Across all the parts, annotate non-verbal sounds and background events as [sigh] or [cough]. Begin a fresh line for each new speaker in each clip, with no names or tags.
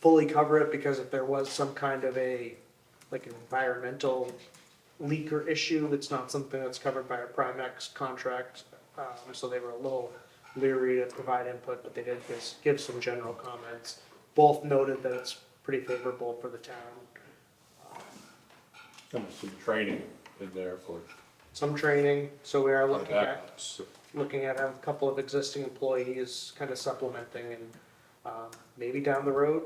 fully cover it because if there was some kind of a, like an environmental leak or issue, it's not something that's covered by a Primex contract. Um, so they were a little leery to provide input, but they did just give some general comments. Both noted that it's pretty favorable for the town.
And some training in there for
Some training, so we are looking at
that. So-
looking at a couple of existing employees kind of supplementing and um, maybe down the road,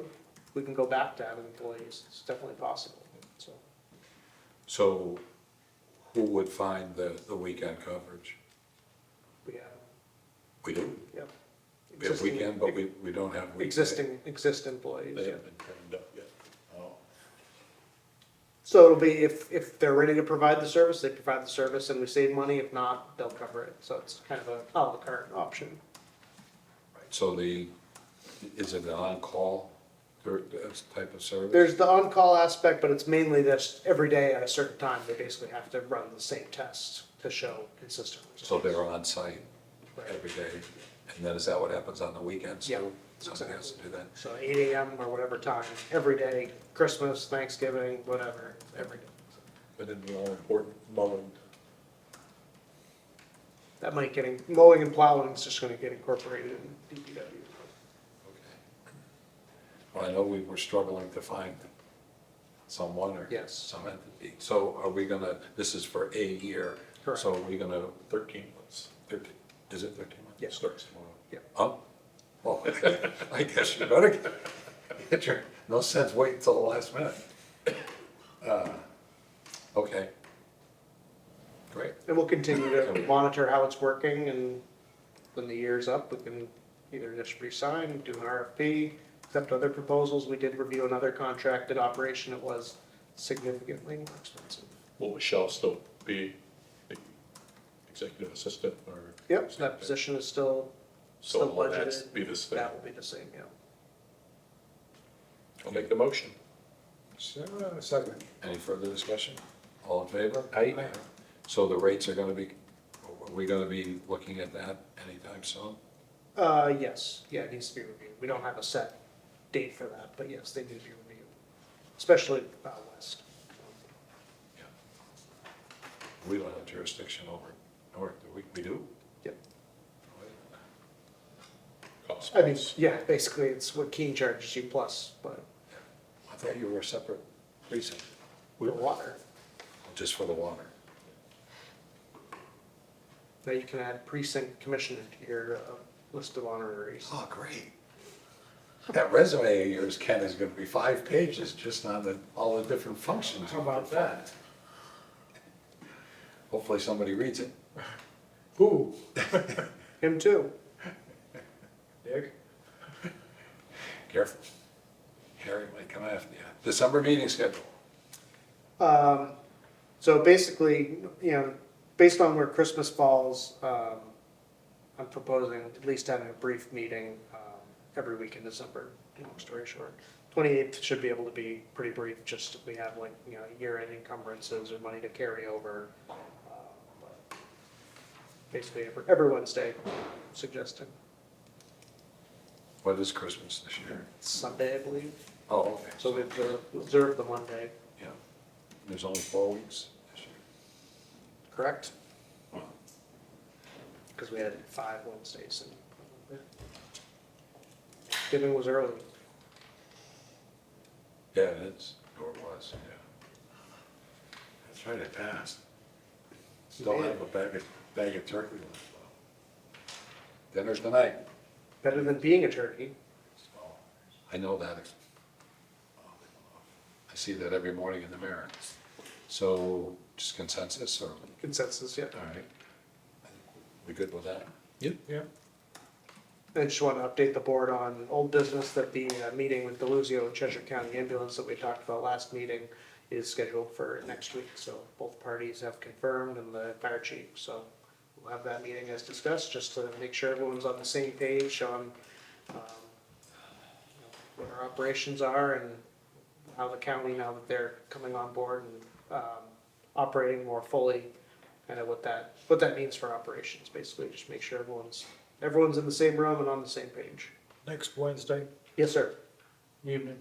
we can go back to having employees. It's definitely possible, so.
So who would find the, the weekend coverage?
We have,
We do.
yep.
We have
Existing-
weekend, but we, we don't have weekday.
Existing, existing employees,
They
yeah.
haven't been trained up yet. Oh,
So it'll be, if, if they're ready to provide the service, they provide the service and we save money. If not, they'll cover it. So it's kind of a à la carte option.
So the, is it an on-call, or this type of service?
There's the on-call aspect, but it's mainly this, every day at a certain time, they basically have to run the same test to show consistently.
So they're on site
Right.
every day, and then is that what happens on the weekends?
Yeah.
too? Somebody has to do that.
So eight AM or whatever time, every day, Christmas, Thanksgiving, whatever, every day.
But in the all important mowing,
That might getting, mowing and plowing is just gonna get incorporated in DPW.
Well, I know we were struggling to find someone or
Yes.
some entity. So are we gonna, this is for a year.
Correct.
So are we gonna,
thirteen months.
thirteen, is it thirteen months?
Yeah.
Starts tomorrow.
Huh? Oh. Well, [laughs] I guess you better get- get your, no sense waiting until the last minute. Uh, Okay. Great.
And we'll continue to monitor how it's working and when the year's up, we can either just resign, do an RFP, accept other proposals. We did review another contracted operation. It was significantly more expensive.
Will Michelle still be the executive assistant or?
Yep, so that position is still,
So
still
will that
budgeted.
be this thing?
that will be the same, yeah.
I'll make the motion.
Second. Any further discussion? All in favor?
Aye.
So the rates are gonna be, are we gonna be looking at that anytime soon?
Uh, yes, yeah, it needs to be reviewed. We don't have a set date for that, but yes, they need to be reviewed, especially out west.
We don't have jurisdiction over, or do we, we do?
Yep.
Cost
I mean,
plus.
yeah, basically, it's what Keene charges you plus, but
I thought you were a separate precinct,
the water.
just for the water.
Now you can add precinct commissioner to your uh, list of honoraries.
Oh, great. That resume of yours, Ken, is gonna be five pages just on the, all the different functions. How about that? Hopefully somebody reads it.
Who?
Him too.
Dick?
Careful. Harry might come after you. December meeting schedule.
Um, so basically, you know, based on where Christmas falls, um, I'm proposing at least having a brief meeting, um, every week in December, long story short. Twenty-eighth should be able to be pretty brief, just if we have like, you know, year-end encumbrances or money to carry over. um, but Basically, every, every Wednesday, suggesting
What is Christmas this year?
Sunday, I believe,
Oh, okay.
so we observe, observe the Monday,
Yeah. There's only four weeks this year.
correct? Because we had five Wednesdays and Thanksgiving was early.
Yeah, it is. Or it was, yeah. That's right, it passed. Still have a bag of, bag of turkey left. though. Dinner's tonight.
Better than being a turkey.
I know that. I see that every morning in the mirror. So just consensus or, all
Consensus, yeah.
right. We good with that?
Yeah.
I just want to update the board on old business that the uh, meeting with Deluzio and Cheshire County Ambulance that we talked about last meeting is scheduled for next week. So both parties have confirmed and the fire chief. So we'll have that meeting as discussed, just to make sure everyone's on the same page on um, you know, what our operations are and how the county, now that they're coming on board and um, operating more fully, kind of what that, what that means for operations, basically. Just make sure everyone's Everyone's in the same room and on the same page.
next Wednesday
Yes, sir.
evening.